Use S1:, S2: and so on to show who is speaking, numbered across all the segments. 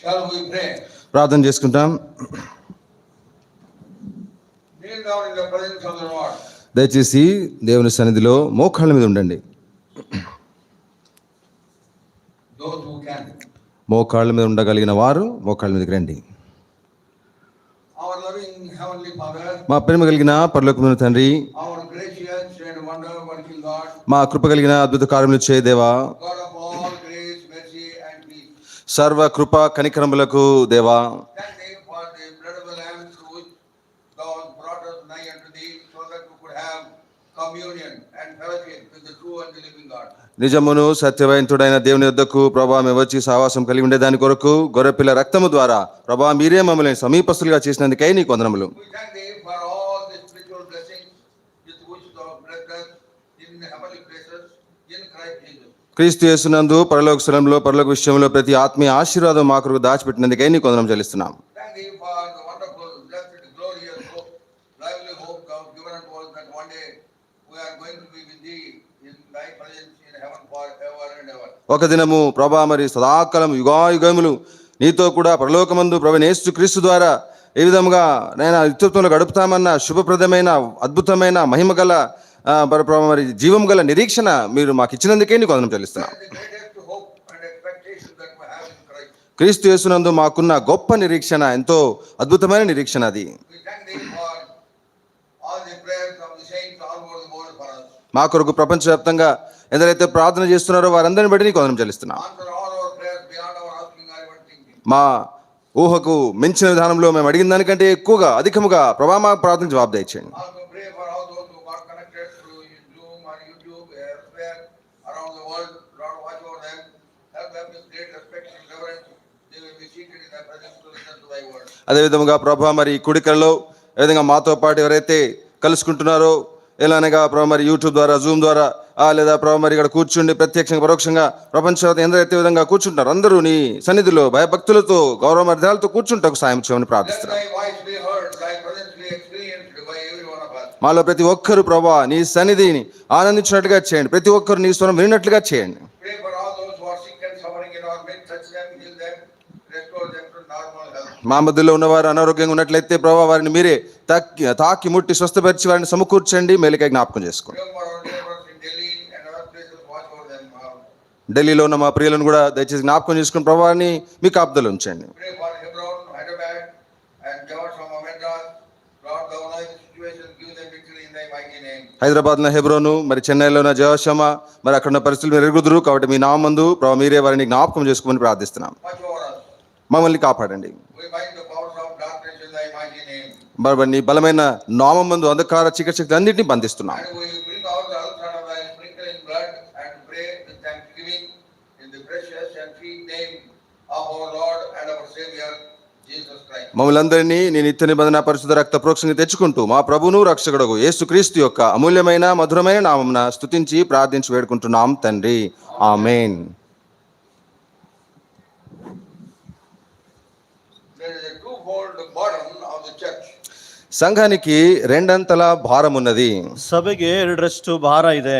S1: Shall we pray?
S2: ప్రార్థన చేసుకుంటాం
S1: Kneel down in the presence of the Lord.
S2: దయచేసి దేవుని సన్నిధిలో మోకాళ్ళ మీద ఉండండి
S1: Those who can.
S2: మోకాళ్ళ మీద ఉండగలిగిన వారు మోకాళ్ళ మీదకి రండి
S1: Our loving Heavenly Father,
S2: మా ప్రేమ కలిగిన పరలోకమైన తండ్రి
S1: our gracious and wonder working God,
S2: మా కృప కలిగిన అద్భుత కార్యములు చేయ దేవా
S1: God of all grace, mercy and peace.
S2: సర్వ కృప కనికరములకు దేవా
S1: Thank thee for the blood of the Lamb through which thou hast brought us nigh unto thee, so that we could have communion and fellowship with the true and the living God.
S2: నిజమును సత్యవయంతుడైన దేవుని యొద్దకు ప్రభా మేము వచ్చి సహవాసం కలిగి ఉండే దాని కొరకు గొర్రెపిల్ల రక్తము ద్వారా ప్రభా మీరే మమ్మల్ని సమీపస్తులుగా చేసినందుకై నీ కొందనములు
S1: We thank thee for all the spiritual blessings with which thou hast blessed us in heavenly places in Christ Jesus.
S2: క్రీస్తు యేసునందు పరలోక స్థలంలో పరలోక విషయంలో ప్రతి ఆత్మీయ ఆశీర్వాదం మా కొరకు దాచిపెట్టినందుకై నీ కొందనం చెల్లిస్తున్నాం
S1: Thank thee for the wonderful, blessed, glorious hope, lively hope thou hast given unto us that one day we are going to be with thee in thy presence in heaven forever and ever.
S2: ఒక దినము ప్రభా మరి సదాకాలం యుగాయుగములు నీతో కూడా పరలోకమందు ప్రభనేస్తు క్రీస్తు ద్వారా ఏ విధముగా నేను నిత్యత్వంలో గడుపుతామన్న శుభప్రదమైన అద్భుతమైన మహిమ గల ఆ, మరి ప్రభా మరి జీవం గల నిరీక్షణ మీరు మాకు ఇచ్చినందుకే నీకు వందనం చెల్లిస్తున్నాం
S1: That is the greatest hope and expectation that we have in Christ.
S2: క్రీస్తు యేసునందు మాకున్న గొప్ప నిరీక్షణ ఎంతో అద్భుతమైన నిరీక్షణ అది
S1: We thank thee for all the prayers of the saints all over the world for us.
S2: మా కొరకు ప్రపంచవ్యాప్తంగా ఎందరైతే ప్రార్థన చేస్తున్నారో వారందరిని బట్టి నీకు వందనం చెల్లిస్తున్నాం
S1: Answer all our prayers beyond our asking or even thinking.
S2: మా ఊహకు మించిన విధానంలో మేము అడిగిన దానికంటే ఎక్కువగా అధికముగా ప్రభా మా ప్రార్థన జవాబు దయచేయండి
S1: Also pray for all those who are connected through Zoom or YouTube, elsewhere, around the world, Lord, watch over them, help them with great respect and reverence, they will be seated in thy presence to listen to thy word.
S2: అదేవిధముగా ప్రభా మరి కుడికలలో ఏ విధంగా మాతో పాటు ఎవరైతే కలుసుకుంటున్నారో ఎలానగా ప్రభా మరి YouTube ద్వారా జూమ్ ద్వారా ఆ లేదా ప్రభా మరి ఇక్కడ కూర్చుండి ప్రత్యక్షంగా పరోక్షంగా ప్రపంచవ్యాప్తంగా ఎందరైతే విధంగా కూర్చుంటారు అందరూ నీ సన్నిధిలో భయభక్తులతో గౌరవ మర్యాదలతో కూర్చుంటకు సాయం చేయమని
S1: Let
S2: ప్రార్థిస్తున్నాం
S1: thy voice be heard, thy presence be experienced by every one of us.
S2: మాలో ప్రతి ఒక్కరు ప్రభా నీ సన్నిధిని ఆనందించినట్లుగా చేయండి ప్రతి ఒక్కరు నీ స్వరం వినినట్లుగా చేయండి
S1: Pray for all those who are sick and suffering in our midst, touch them, heal them, restore them to normal health.
S2: మా మధ్యలో ఉన్నవారు అనారోగ్యంగా ఉన్నట్లయితే ప్రభా వారిని మీరే తాకి తాకి ముట్టి స్వస్థపరిచి వారిని సమకూర్చండి మేలుకై జ్ఞాపకం చేసుకోండి
S1: Pray for our neighbors in Delhi and other places, watch over them all.
S2: ఢిల్లీలో ఉన్న మా ప్రియులను కూడా దయచేసి జ్ఞాపకం చేసుకుని ప్రభావాన్ని మీ కాపుదలు ఉంచండి
S1: Pray for Hebron, Hyderabad, and Jawad from Amendra. Lord, thou knowest the situation, give them victory in thy mighty name.
S2: హైదరాబాద్లో హెబ్రోను మరి చెన్నైలో ఉన్న జయశమ మరి అక్కడ ఉన్న పరిస్థితులు మీరు ఎరుగుదురు కాబట్టి మీ నామందు ప్రభా మీరే వారిని జ్ఞాపకం చేసుకోమని ప్రార్థిస్తున్నాం
S1: Watch over us.
S2: మమ్మల్ని కాపాడండి
S1: We bind the powers of darkness in thy mighty name.
S2: మరి నీ బలమైన నామం మందు అంధకార చీకటి అన్నింటినీ బంధిస్తున్నాం
S1: And we bring out the altar of thy sprinkling blood and pray with thanksgiving in the precious and sweet name of our Lord and our Savior, Jesus Christ.
S2: మమ్మల్ని అందరినీ నీ నిత్య నిబంధన పరిశుద్ధ రక్త ప్రోక్షని తెచ్చుకుంటూ మా ప్రభును రక్షకుడగు యేసుక్రీస్తు యొక్క అమూల్యమైన మధురమైన నామమున స్తుతించి ప్రార్థించి వేడుకుంటున్నాం తండ్రి amen
S1: There is a twofold burden of the church.
S2: సంఘానికి రెండంతల భారం ఉన్నది
S3: ಸಭೆಗೆ ಎರಡರಷ್ಟು ಭಾರ ಇದೆ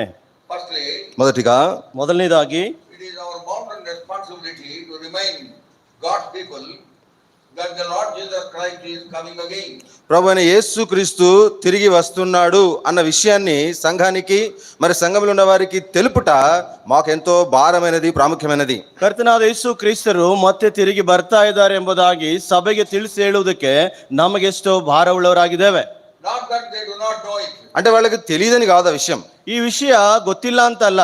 S1: Firstly,
S2: మొదటిగా
S3: ಮೊದಲನೇದಾಗಿ
S1: It is our mountain responsibility to remind God's people that the Lord Jesus Christ is coming again.
S2: ప్రభు అయిన యేసుక్రీస్తు తిరిగి వస్తున్నాడు అన్న విషయాన్ని సంఘానికి మరి సంఘంలో ఉన్న వారికి తెలుపుట మాకెంతో భారమైనది ప్రాముఖ్యమైనది
S3: ಕರ್ತನಾದ ಯೇಸು ಕ್ರಿಸ್ತರು ಮತ್ತೆ ತಿರುಗಿ ಬರ್ತಾ ಇದ್ದಾರೆ ಎಂಬುದಾಗಿ ಸಭೆಗೆ ತಿಳಿಸಿ ಹೇಳುವುದಕ್ಕೆ ನಮಗೆಷ್ಟೋ ಭಾರವುಳ್ಳವರಾಗಿದ್ದೇವೆ
S1: Not that they do not know it,
S2: అంటే వాళ్ళకి తెలియదని కాదు ఆ విషయం
S3: ಈ ವಿಷಯ ಗೊತ್ತಿಲ್ಲ ಅಂತಲ್ಲ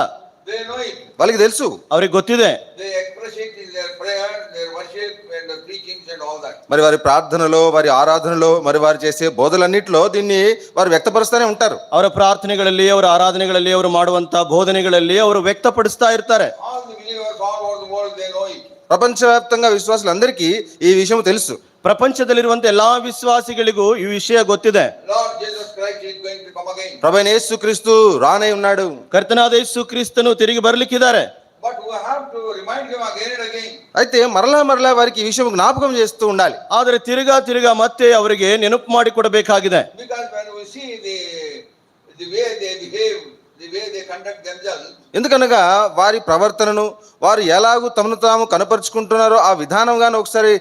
S1: they know it.
S2: వాళ్ళకి తెలుసు
S3: ಅವ್ರಿಗೆ ಗೊತ್ತಿದೆ
S1: They express it in their prayers, their worship, and the preachings and all that.
S2: మరి వారి ప్రార్థనలో వారి ఆరాధనలో మరి వారు చేసే బోధలన్నిటిలో దీన్ని వారు వ్యక్తపరుస్తూనే ఉంటారు
S3: ಅವರ ಪ್ರಾರ್ಥನೆಗಳಲ್ಲಿ ಅವರ ಆರಾಧನೆಗಳಲ್ಲಿ ಅವರು ಮಾಡುವಂತ ಬೋಧನೆಗಳಲ್ಲಿ ಅವರು ವ್ಯಕ್ತಪಡಿಸ್ತಾ ಇರ್ತಾರೆ
S1: All the believers all over the world, they know it.
S2: ప్రపంచవ్యాప్తంగా విశ్వాసులందరికీ ఈ విషయం తెలుసు
S3: ಪ್ರಪಂಚದಲ್ಲಿರುವಂತ ಎಲ್ಲಾ ವಿಶ್ವಾಸಿಗಳಿಗೂ ಈ ವಿಷಯ ಗೊತ್ತಿದೆ
S1: Lord Jesus Christ is going to come again.
S2: ప్రభైన యేసుక్రీస్తు రానై ఉన్నాడు
S3: ಕರ್ತನಾದ ಯೇಸು ಕ್ರಿಸ್ತನು ತಿರುಗಿ ಬರ್ಲಿಕ್ಕಿದ್ದಾರೆ
S1: But we have to remind him again and again.
S2: అయితే మరలా మరలా వారికి ఈ విషయం జ్ఞాపకం చేస్తూ ఉండాలి
S3: ಆದರೆ ತಿರುಗಾ ತಿರುಗಾ ಮತ್ತೆ ಅವರಿಗೆ ನೆನಪು ಮಾಡಿಕೊಡಬೇಕಾಗಿದೆ
S1: Because when we see the, the way they behave the way they conduct themselves,
S2: ఎందుకనగా వారి ప్రవర్తనను వారు ఎలాగూ తమను తాము కనపరుచుకుంటున్నారో ఆ విధానంగాను ఒకసారి